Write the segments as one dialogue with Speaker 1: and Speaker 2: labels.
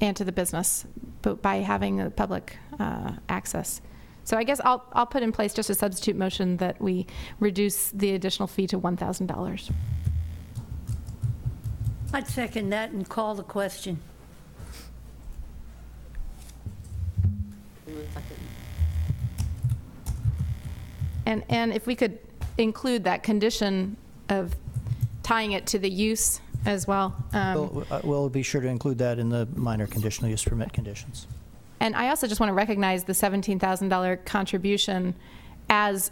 Speaker 1: and to the business, but by having a public uh, access. So I guess I'll, I'll put in place just a substitute motion that we reduce the additional fee to $1,000.
Speaker 2: I'd second that and call the question.
Speaker 1: And, and if we could include that condition of tying it to the use as well. um,
Speaker 3: We'll uh, we'll be sure to include that in the minor conditional use permit conditions.
Speaker 1: And I also just want to recognize the $17,000 contribution as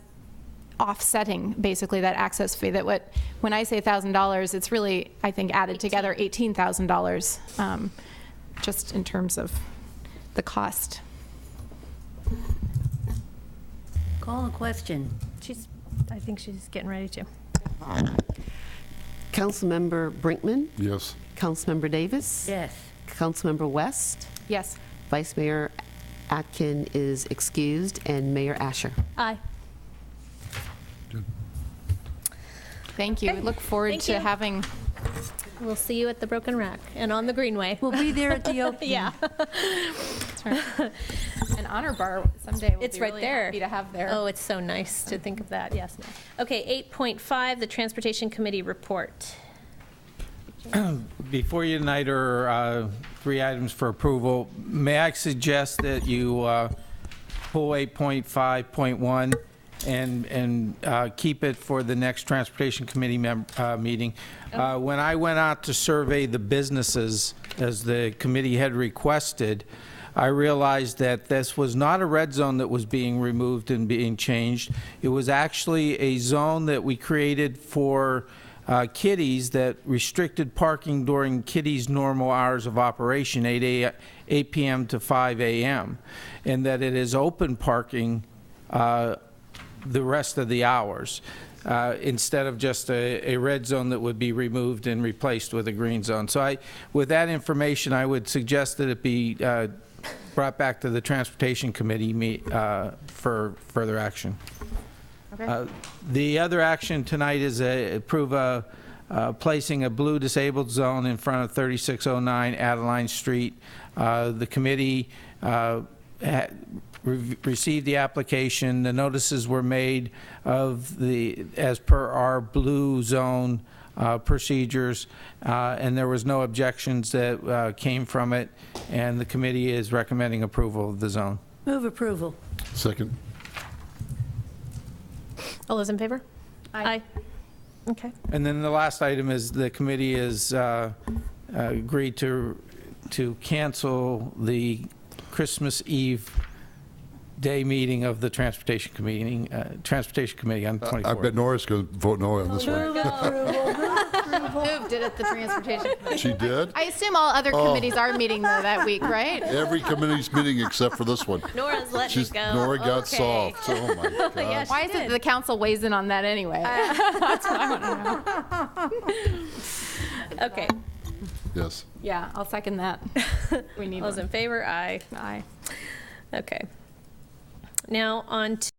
Speaker 1: offsetting, basically, that access fee. That what, when I say $1,000, it's really, I think, added together $18,000, um, just in terms of the cost.
Speaker 2: Call the question.
Speaker 4: She's, I think she's getting ready to.
Speaker 5: Councilmember Brinkman,
Speaker 6: Yes.
Speaker 5: Councilmember Davis,
Speaker 2: Yes.
Speaker 5: Councilmember West,
Speaker 1: Yes.
Speaker 5: Vice Mayor Atkin is excused, and Mayor Asher.
Speaker 4: Aye.
Speaker 1: Thank you. We Look forward
Speaker 4: Thank
Speaker 1: to
Speaker 4: you.
Speaker 1: having,
Speaker 4: We'll see you at the Broken Rack and on the Greenway.
Speaker 2: We'll be there at the opening.
Speaker 4: Yeah.
Speaker 1: an honor bar someday. We'll
Speaker 4: It's
Speaker 1: be
Speaker 4: right
Speaker 1: really
Speaker 4: there.
Speaker 1: Happy to have there.
Speaker 4: Oh, it's so nice to think of that, yes. Okay, 8.5, the Transportation Committee Report.
Speaker 7: Before you tonight are uh, three items for approval. May I suggest that you uh, pull 8.5.1 and, and uh, keep it for the next Transportation Committee mem- uh, meeting? Uh, When I went out to survey the businesses, as the committee had requested, I realized that this was not a red zone that was being removed and being changed. It was actually a zone that we created for uh, kiddies that restricted parking during kiddies' normal hours of operation, 8 a, 8 p.m. to 5 a.m., and that it is open parking uh, the rest of the hours, uh, instead of just a, a red zone that would be removed and replaced with a green zone. So I, with that information, I would suggest that it be uh, brought back to the Transportation Committee me- uh, for further action. Uh, The other action tonight is a- approve a, uh, placing a blue disabled zone in front of 3609 Adeline Street. Uh, The committee uh, ha- re- received the application, the notices were made of the, as per our blue zone uh, procedures, uh, and there was no objections that uh, came from it, and the committee is recommending approval of the zone.
Speaker 2: Move approval.
Speaker 6: Second.
Speaker 4: All those in favor? Aye. Okay.
Speaker 7: And then the last item is the committee has uh, agreed to, to cancel the Christmas Eve day meeting of the Transportation Committee, uh, Transportation Committee on
Speaker 6: I
Speaker 7: 24th.
Speaker 6: bet Nora's going to vote no on this one.
Speaker 1: Moved it at the Transportation.
Speaker 6: She did?
Speaker 1: I assume all other committees are meeting though that week, right?
Speaker 6: Every committee's meeting except for this one.
Speaker 4: Nora's letting
Speaker 6: She's, Nora got soft. Oh, my gosh.
Speaker 1: Why is it the council weighs in on that anyway?
Speaker 4: Uh, Okay,
Speaker 6: Yes.
Speaker 1: Yeah, I'll second that. We need
Speaker 4: all those in
Speaker 1: one.
Speaker 4: favor? Aye.
Speaker 1: Aye.
Speaker 4: Okay. Now on to